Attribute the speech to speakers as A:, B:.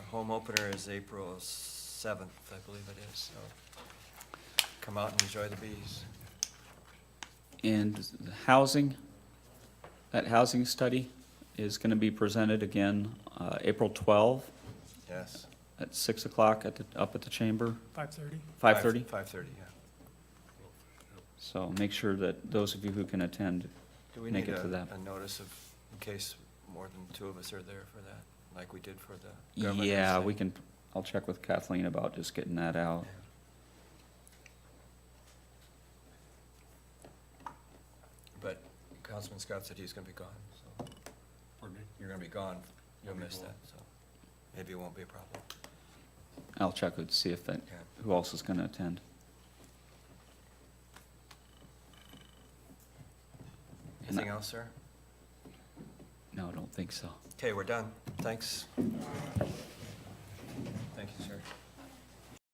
A: home opener is April seventh, I believe it is, so come out and enjoy the bees.
B: And the housing, that housing study is going to be presented again uh, April 12
A: Yes.
B: at 6 o'clock at the, up at the chamber,
C: Five thirty.
B: 5:30.
A: Five thirty, yeah.
B: So make sure that those of you who can attend,
A: Do we
B: Make
A: need
B: it to
A: a,
B: that.
A: a notice of, in case more than two of us are there for that, like we did for the government?
B: yeah, we can, I'll check with Kathleen about just getting that out.
A: But Councilman Scott said he's gonna be gone, so
D: Pardon me?
A: you're gonna be gone, you'll
D: I'll be
A: miss
D: gone.
A: that, so maybe it won't be a problem.
B: I'll check with, see if, that-
A: Okay.
B: who else is going to attend.
A: Anything else, sir?
B: No, I don't think so.
A: Okay, we're done. Thanks.